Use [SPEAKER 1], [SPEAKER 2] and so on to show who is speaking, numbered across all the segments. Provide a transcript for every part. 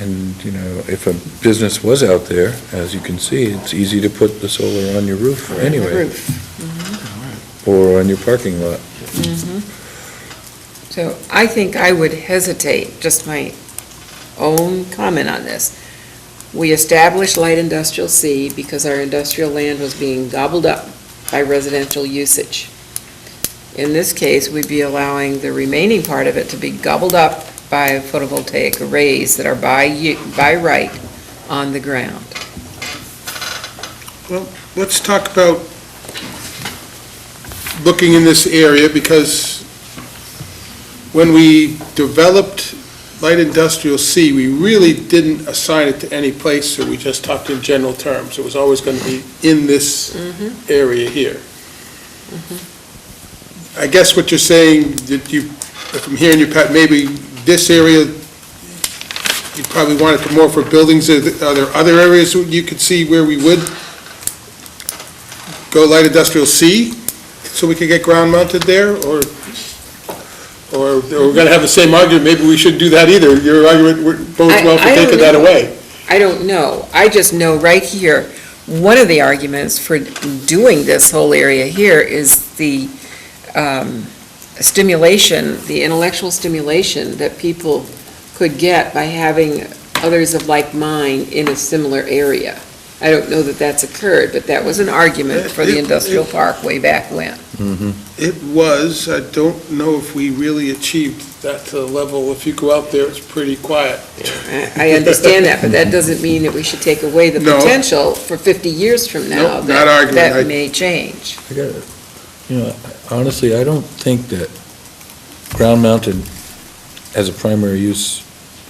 [SPEAKER 1] And, you know, if a business was out there, as you can see, it's easy to put the solar on your roof anyway,
[SPEAKER 2] Roof.
[SPEAKER 1] or on your parking lot.
[SPEAKER 2] Mm-hmm. So I think I would hesitate, just my own comment on this. We established light industrial C because our industrial land was being gobbled up by residential usage. In this case, we'd be allowing the remaining part of it to be gobbled up by photovoltaic arrays that are by, u- by right on the ground.
[SPEAKER 3] Let's talk about looking in this area, because when we developed light industrial C, we really didn't assign it to any place, so we just talked in general terms. It was always going to be in this area here. I guess what you're saying, that you, if I'm hearing you, Pat, maybe this area, you probably want it more for buildings. Are th- are there other areas you could see where we would go light industrial C, so we could get ground mounted there, or, or or we're gonna have the same argument, maybe we shouldn't do that either. Your argument, we're both
[SPEAKER 2] I-
[SPEAKER 3] well for
[SPEAKER 2] I don't
[SPEAKER 3] taking that
[SPEAKER 2] know.
[SPEAKER 3] away.
[SPEAKER 2] I don't know. I just know right here, one of the arguments for doing this whole area here is the um, stimulation, the intellectual stimulation that people could get by having others of like mind in a similar area. I don't know that that's occurred, but that was an argument for
[SPEAKER 3] It-
[SPEAKER 2] the
[SPEAKER 3] it-
[SPEAKER 2] industrial park way back when.
[SPEAKER 3] It was, I don't know if we really achieved that to the level, if you go out there, it's pretty quiet.
[SPEAKER 2] I I understand that, but that doesn't mean that we should take away the
[SPEAKER 3] No.
[SPEAKER 2] potential for 50 years from now.
[SPEAKER 3] Nope, not
[SPEAKER 2] that-
[SPEAKER 3] arguing. I-
[SPEAKER 2] That may change.
[SPEAKER 1] I got it. You know, honestly, I don't think that ground mounted as a primary use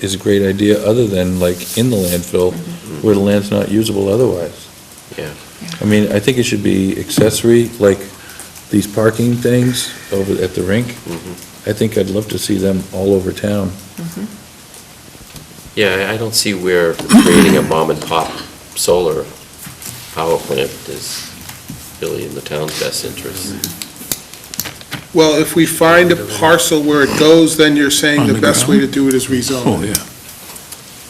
[SPEAKER 1] is a great idea, other than like in the landfill, where the land's not usable otherwise.
[SPEAKER 4] Yeah.
[SPEAKER 1] I mean, I think it should be accessory, like these parking things over at the rink.
[SPEAKER 4] Mm-hmm.
[SPEAKER 1] I think I'd love to see them all over town.
[SPEAKER 4] Yeah, I- I don't see where creating a mom and pop solar power plant is really in the town's best interest.
[SPEAKER 3] Well, if we find a parcel where it goes, then you're saying the best way to do it is rezone.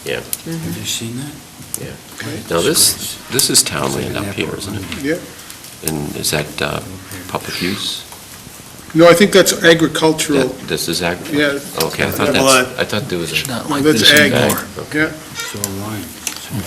[SPEAKER 5] yeah.
[SPEAKER 4] Yeah.
[SPEAKER 5] Have you seen that?
[SPEAKER 4] Yeah. Now, this, this is town land up here, isn't it?
[SPEAKER 3] Yeah.
[SPEAKER 4] And is that uh, public use?
[SPEAKER 3] No, I think that's agricultural.
[SPEAKER 4] That- This is agriculture?
[SPEAKER 3] Yeah.
[SPEAKER 4] Okay, I thought
[SPEAKER 5] Blood.
[SPEAKER 4] that's, I thought there was
[SPEAKER 5] It's
[SPEAKER 4] a...
[SPEAKER 5] not
[SPEAKER 3] No,
[SPEAKER 5] like
[SPEAKER 3] that's
[SPEAKER 5] this
[SPEAKER 3] ag.
[SPEAKER 5] anymore.
[SPEAKER 3] Yeah.
[SPEAKER 5] It's all line.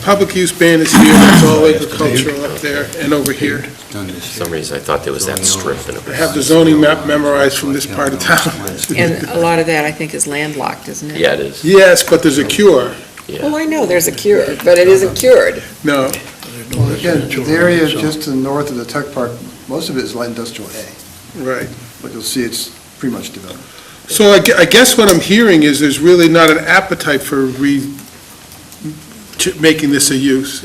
[SPEAKER 3] Public use ban is here, it's all agricultural up there and over here.
[SPEAKER 5] It's done this
[SPEAKER 4] For
[SPEAKER 5] year.
[SPEAKER 4] some reason, I thought there was that strip in
[SPEAKER 3] I
[SPEAKER 4] it.
[SPEAKER 3] have the zoning map memorized from this part of town.
[SPEAKER 2] And a lot of that, I think, is landlocked, isn't it?
[SPEAKER 4] Yeah, it is,
[SPEAKER 3] Yes, but there's a cure.
[SPEAKER 2] Well,
[SPEAKER 4] yeah.
[SPEAKER 2] I know there's a cure, but it isn't cured.
[SPEAKER 3] No,
[SPEAKER 6] Well, again, the area just to the north of the tech park, most of it is light industrial A,
[SPEAKER 3] right.
[SPEAKER 6] but you'll see it's pretty much developed.
[SPEAKER 3] So I gue- I guess what I'm hearing is there's really not an appetite for re, ch- making this a use.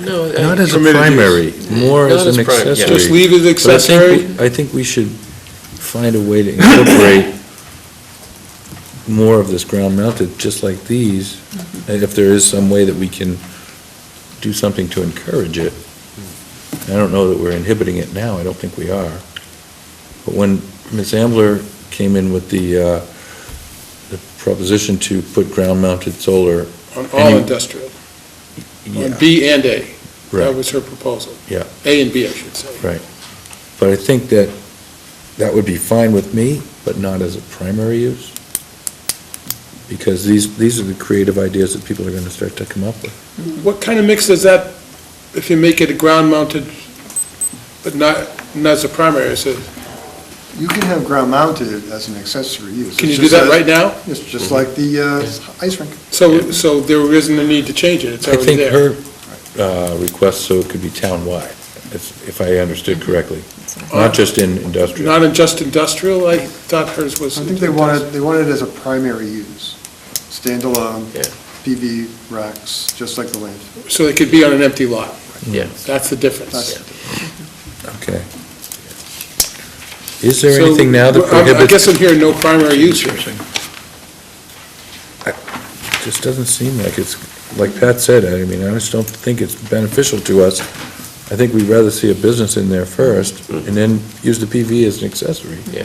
[SPEAKER 4] No, I-
[SPEAKER 1] Not as a
[SPEAKER 3] Permitted use.
[SPEAKER 1] primary, more
[SPEAKER 4] Not
[SPEAKER 1] as an
[SPEAKER 4] as prim- yeah.
[SPEAKER 1] accessory.
[SPEAKER 3] Just leave it
[SPEAKER 1] But I think we-
[SPEAKER 3] accessory?
[SPEAKER 1] I think we should find a way to incorporate more of this ground mounted, just like these,
[SPEAKER 3] Mm-hmm.
[SPEAKER 1] and if there is some way that we can do something to encourage it. I don't know that we're inhibiting it now, I don't think we are. But when Ms. Ambler came in with the, uh, the proposition to put ground mounted solar.
[SPEAKER 3] On all industrial, on B and A. That
[SPEAKER 1] Right.
[SPEAKER 3] was her proposal.
[SPEAKER 1] Yeah.
[SPEAKER 3] A and B, I should say.
[SPEAKER 1] But I think that that would be fine with me, but not as a primary use. Because these, these are the creative ideas that people are going to start to come up with.
[SPEAKER 3] What kind of mix is that if you make it a ground-mounted, but not, not as a primary? Is it-
[SPEAKER 6] You can have ground mounted as an accessory use.
[SPEAKER 3] Can you
[SPEAKER 6] It's
[SPEAKER 3] do
[SPEAKER 6] just
[SPEAKER 3] that
[SPEAKER 6] a-
[SPEAKER 3] right now?
[SPEAKER 6] It's just like the uh, ice rink.
[SPEAKER 3] So, so there isn't a need to change it, it's
[SPEAKER 1] I
[SPEAKER 3] already
[SPEAKER 1] think
[SPEAKER 3] there.
[SPEAKER 1] her uh, request, so it could be townwide, if if I understood correctly,
[SPEAKER 3] Uh,
[SPEAKER 1] not just in industrial.
[SPEAKER 3] Not in just industrial, I thought hers was.
[SPEAKER 6] I think they wanted, they wanted it as a primary use, standalone,
[SPEAKER 4] Yeah.
[SPEAKER 6] PV racks, just like the land.
[SPEAKER 3] So it could be on an empty lot,
[SPEAKER 4] Yeah.
[SPEAKER 3] that's the difference.
[SPEAKER 6] That's-
[SPEAKER 1] Okay. Is there
[SPEAKER 3] So,
[SPEAKER 1] anything now that
[SPEAKER 3] I- I guess
[SPEAKER 1] prohibits,
[SPEAKER 3] I'm hearing no primary use here.
[SPEAKER 1] just doesn't seem like it's, like Pat said, I mean, I just don't think it's beneficial to us. I think we'd rather see a business in there first, and then use the PV as an accessory.